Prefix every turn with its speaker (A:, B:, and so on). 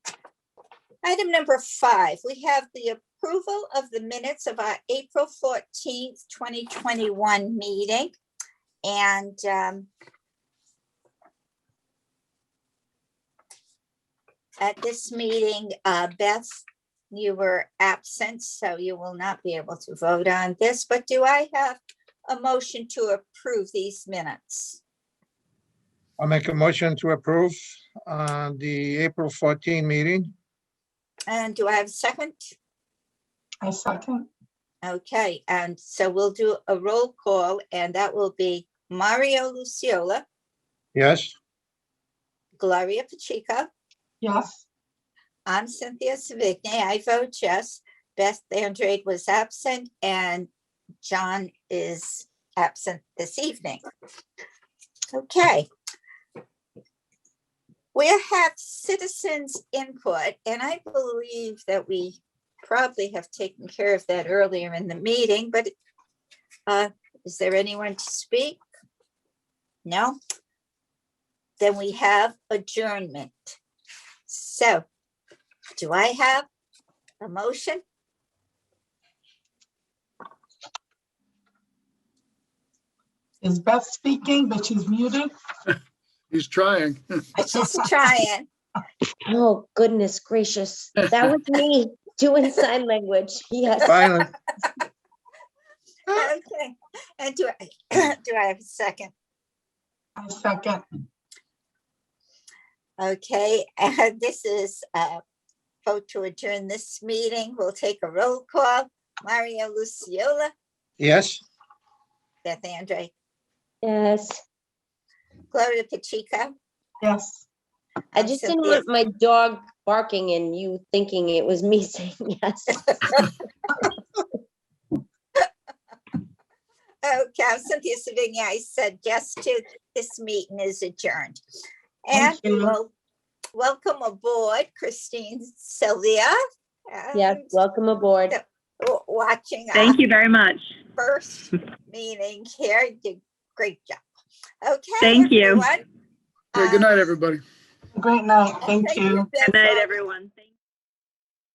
A: Item number five, we have the approval of the minutes of our April fourteenth, twenty twenty-one meeting. And um, at this meeting, uh, Beth, you were absent, so you will not be able to vote on this, but do I have a motion to approve these minutes?
B: I'll make a motion to approve uh, the April 14 meeting.
A: And do I have a second?
C: I second.
A: Okay, and so we'll do a roll call and that will be Mario Luciola,
B: Yes,
A: Gloria Pacheco,
C: Yes,
A: I'm Cynthia Savigny, I vote yes. Beth Andrade was absent and John is absent this evening. Okay. We have citizens input and I believe that we probably have taken care of that earlier in the meeting, but uh, is there anyone to speak? No? Then we have adjournment. So do I have a motion?
C: is Beth speaking, but she's muted?
D: He's trying.
A: I just trying.
E: Oh, goodness gracious. That was me doing sign language. Yes.
B: finally,
A: Okay. And do I, do I have a second?
C: I second.
A: Okay, and this is a vote to adjourn this meeting. We'll take a roll call. Mario Luciola,
B: yes.
A: Beth Andre,
E: Yes.
A: Gloria Pacheco.
C: Yes,
E: I just didn't want my dog barking and you thinking it was me saying yes.
A: Okay, I'm Cynthia Oh, Savigny, I said yes to this meeting is adjourned. And
C: Thank
A: we
C: you.
A: will welcome aboard Christine Sylvia.
E: Yes,
A: and
E: welcome aboard.
A: w- Watching. our
F: Thank you very much.
A: first meeting here. You did a great job. Okay.
F: Thank you.
A: everyone.
D: Okay, good
A: Uh,
D: night, everybody.
C: great night. Thank you.
A: Beth.
F: Good night, everyone. Thank-